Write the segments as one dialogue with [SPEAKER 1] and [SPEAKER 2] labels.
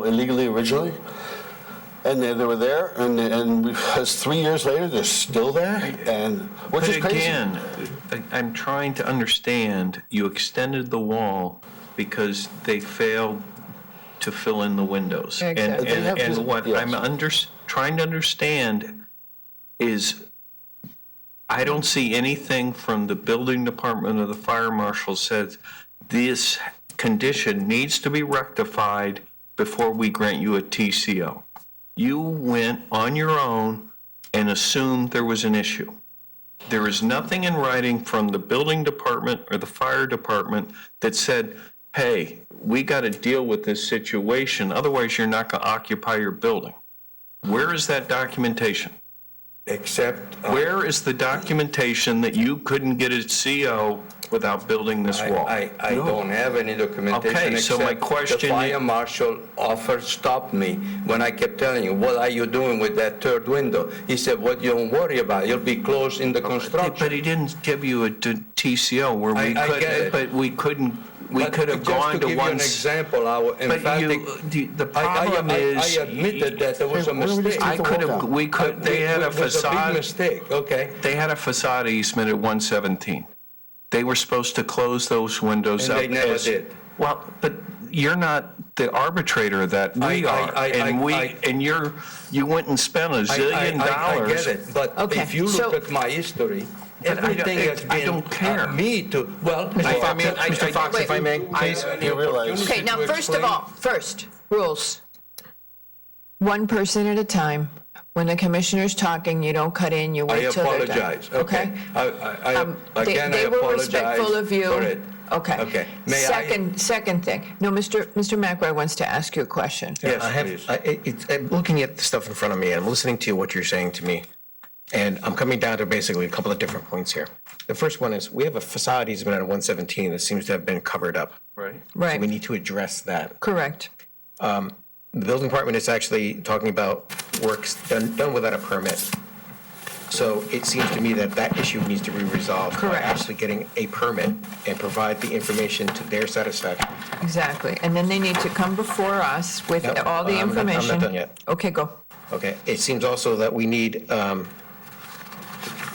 [SPEAKER 1] illegally originally, and they, they were there, and, and because three years later, they're still there, and, which is
[SPEAKER 2] But
[SPEAKER 1] crazy.
[SPEAKER 2] again, I- I'm trying to understand, you extended the wall because they failed to fill in the windows. And-
[SPEAKER 3] Exactly.
[SPEAKER 1] They have
[SPEAKER 2] And,
[SPEAKER 1] to-
[SPEAKER 2] and what
[SPEAKER 1] yes.
[SPEAKER 2] I'm under, trying to understand is, I don't see anything from the building department or the fire marshal says this condition needs to be rectified before we grant you a TCO. You went on your own and assumed there was an issue. There is nothing in writing from the building department or the fire department that said, hey, we got to deal with this situation, otherwise you're not going to occupy your building. Where is that documentation?
[SPEAKER 4] Except, uh,
[SPEAKER 2] Where is the documentation that you couldn't get a CO without building this
[SPEAKER 4] I,
[SPEAKER 2] wall?
[SPEAKER 4] I, I don't have any documentation.
[SPEAKER 2] Okay, so my
[SPEAKER 4] except
[SPEAKER 2] question
[SPEAKER 4] The
[SPEAKER 2] i-
[SPEAKER 4] fire marshal offered, stopped me when I kept telling you, what are you doing with that third window? He said, what, you don't worry about, it. it'll be closed in the construction.
[SPEAKER 2] But he didn't give you a d- TCO where we
[SPEAKER 4] I- I get
[SPEAKER 2] couldn't,
[SPEAKER 4] it.
[SPEAKER 2] but we couldn't, we
[SPEAKER 4] But
[SPEAKER 2] could have gone to one.
[SPEAKER 4] Just
[SPEAKER 2] s-
[SPEAKER 4] to give you an example, our
[SPEAKER 2] But
[SPEAKER 4] emphatic.
[SPEAKER 2] you, uh, the- the
[SPEAKER 4] I- I-
[SPEAKER 2] problem
[SPEAKER 4] I-
[SPEAKER 2] is.
[SPEAKER 4] I admitted that there was a
[SPEAKER 1] Hey, why don't we just
[SPEAKER 4] mistake.
[SPEAKER 2] I
[SPEAKER 1] the
[SPEAKER 2] could
[SPEAKER 1] wall
[SPEAKER 2] have,
[SPEAKER 1] down.
[SPEAKER 2] we could, they had a
[SPEAKER 4] It was big
[SPEAKER 2] facade,
[SPEAKER 4] mistake, okay?
[SPEAKER 2] they had a facade easement at 117. They were supposed to close those windows
[SPEAKER 4] And
[SPEAKER 2] up.
[SPEAKER 4] they never
[SPEAKER 2] as-
[SPEAKER 4] did.
[SPEAKER 2] Well, but you're not the arbitrator of that we
[SPEAKER 4] I- I-
[SPEAKER 2] are.
[SPEAKER 4] I-
[SPEAKER 2] And
[SPEAKER 4] I-
[SPEAKER 2] we,
[SPEAKER 4] I-
[SPEAKER 2] and you're, you went and spent a
[SPEAKER 4] I- I-
[SPEAKER 2] zillion
[SPEAKER 4] I-
[SPEAKER 2] dollars.
[SPEAKER 4] I get it, but
[SPEAKER 3] Okay,
[SPEAKER 4] if you
[SPEAKER 3] so-
[SPEAKER 4] look at my history,
[SPEAKER 2] But I don't-
[SPEAKER 4] everything
[SPEAKER 2] it-
[SPEAKER 4] has
[SPEAKER 2] I
[SPEAKER 4] been.
[SPEAKER 2] don't care.
[SPEAKER 4] uh, Me too, well.
[SPEAKER 2] I- I
[SPEAKER 4] well,
[SPEAKER 2] mean, I- I-
[SPEAKER 3] if I may,
[SPEAKER 1] Please, you realize.
[SPEAKER 3] Okay, now,
[SPEAKER 4] to
[SPEAKER 3] first of
[SPEAKER 4] explain-
[SPEAKER 3] all, first, rules. One person at a time. When the commissioner's talking, you don't cut in, you
[SPEAKER 4] I
[SPEAKER 3] wait till they're done.
[SPEAKER 4] apologize, okay? I, I,
[SPEAKER 3] Um,
[SPEAKER 4] I-
[SPEAKER 3] they-
[SPEAKER 4] again, I
[SPEAKER 3] They were
[SPEAKER 4] apologize
[SPEAKER 3] respectful of you.
[SPEAKER 4] for it.
[SPEAKER 3] Okay.
[SPEAKER 4] Okay. May I-
[SPEAKER 3] Second, second thing. No, Mr. Mr. McRae wants to ask you a question.
[SPEAKER 4] Yes,
[SPEAKER 5] I
[SPEAKER 4] please.
[SPEAKER 5] have, I, it- it's, I'm looking at the stuff in front of me, and I'm listening to what you're saying to me, and I'm coming down to basically a couple of different points here. The first one is, we have a facade easement on 117 that seems to have been covered up.
[SPEAKER 2] Right.
[SPEAKER 5] So we
[SPEAKER 3] Right,
[SPEAKER 5] need to address that.
[SPEAKER 3] correct.
[SPEAKER 5] The building department is actually talking about works done, done without a permit. So it seems to me that that issue needs to be resolved by
[SPEAKER 3] Correct.
[SPEAKER 5] actually getting a permit and provide the information to their satisfaction.
[SPEAKER 3] Exactly. And then they need to come before us with
[SPEAKER 5] No,
[SPEAKER 3] all the
[SPEAKER 5] I'm not- I'm not
[SPEAKER 3] information.
[SPEAKER 5] done yet.
[SPEAKER 3] Okay, go.
[SPEAKER 5] Okay, it seems also that we need, um,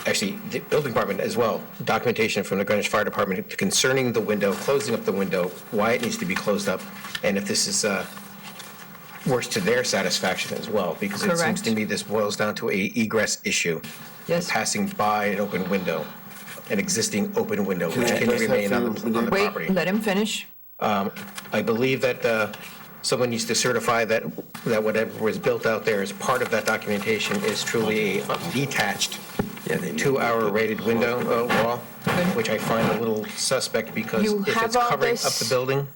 [SPEAKER 5] actually, the building department as well, documentation from the Greenwich Fire Department concerning the window, closing up the window, why it needs to be closed up, and if this is, uh, works to their satisfaction as well, because it seems to
[SPEAKER 3] Correct.
[SPEAKER 5] me this boils down to a egress issue.
[SPEAKER 3] Yes.
[SPEAKER 5] Passing by an open window, an existing open window, which
[SPEAKER 1] Can I
[SPEAKER 5] can
[SPEAKER 1] address that
[SPEAKER 5] remain on
[SPEAKER 1] for you?
[SPEAKER 5] the on the
[SPEAKER 3] Wait,
[SPEAKER 5] property.
[SPEAKER 3] let him finish.
[SPEAKER 5] I believe that uh, someone needs to certify that, that whatever was built out there as part of that documentation is truly a uh, detached two-hour rated window uh, wall, which I find a little suspect because
[SPEAKER 3] You
[SPEAKER 5] if
[SPEAKER 3] have
[SPEAKER 5] it's
[SPEAKER 3] all
[SPEAKER 5] covering up
[SPEAKER 3] this-
[SPEAKER 5] the building,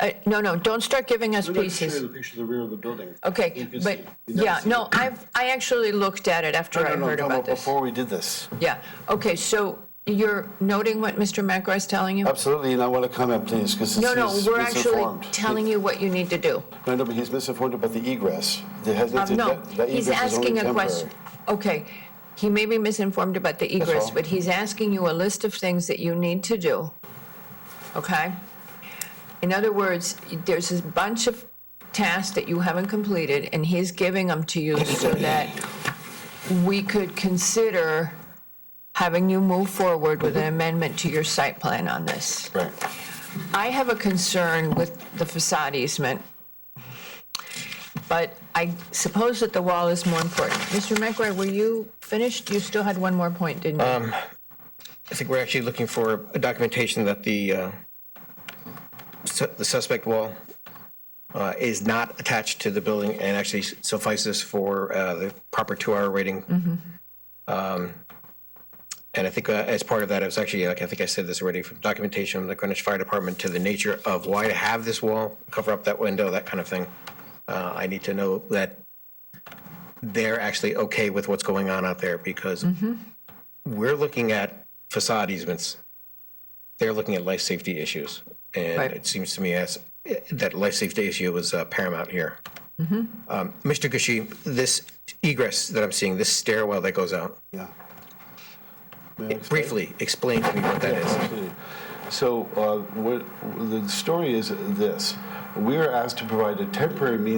[SPEAKER 3] Uh, No, no, don't start giving us pieces.
[SPEAKER 1] picture of the rear of the building. You
[SPEAKER 3] Okay,
[SPEAKER 1] can
[SPEAKER 3] but,
[SPEAKER 1] see. You never
[SPEAKER 3] yeah,
[SPEAKER 1] see
[SPEAKER 3] no,
[SPEAKER 1] it.
[SPEAKER 3] I've, I actually looked at it after I
[SPEAKER 1] No, no, no,
[SPEAKER 3] heard
[SPEAKER 1] no,
[SPEAKER 3] about this.
[SPEAKER 1] Before we did this,
[SPEAKER 3] Yeah, okay, so you're noting what Mr. McRae is telling you?
[SPEAKER 1] absolutely, and I want to comment, please, because he's
[SPEAKER 3] No, no, we're actually
[SPEAKER 1] misinformed.
[SPEAKER 3] telling you what you need to do.
[SPEAKER 1] No, no, but he's misinformed about the egress. There has
[SPEAKER 3] Um,
[SPEAKER 1] nothing,
[SPEAKER 3] No,
[SPEAKER 1] that that egress is
[SPEAKER 3] he's
[SPEAKER 1] only
[SPEAKER 3] asking a
[SPEAKER 1] temporary.
[SPEAKER 3] question. Okay, he may be misinformed about the egress,
[SPEAKER 1] all.
[SPEAKER 3] but he's asking you a list of things that you need to do, okay? In other words, there's a bunch of tasks that you haven't completed, and he's giving them to you so that we could consider having you move forward with an amendment to your site plan on this.
[SPEAKER 1] Right.
[SPEAKER 3] I have a concern with the facade easement, but I suppose that the wall is more important. Mr. McRae, were you finished? You still had one more point, didn't you?
[SPEAKER 5] I think we're actually looking for a documentation that the, uh, su- the suspect wall uh, is not attached to the building and actually suffices for uh, the proper two-hour rating. Um, And I think uh, as part of that, it was actually, like, I think I said this already, from documentation from the Greenwich Fire Department to the nature of why to have this wall, cover up that window, that kind of thing. Uh, I need to know that they're actually okay with what's going on out there because we're looking at facade easements. They're looking at life safety issues. And
[SPEAKER 3] Right.
[SPEAKER 5] it seems to me as, that life safety issue was uh, paramount here. Um, Mr. Gushi, this egress that I'm seeing, this stairwell that goes out,
[SPEAKER 1] Yeah.
[SPEAKER 5] briefly explain to me what that is.
[SPEAKER 1] So uh, what, the story is this. We are asked to provide a temporary means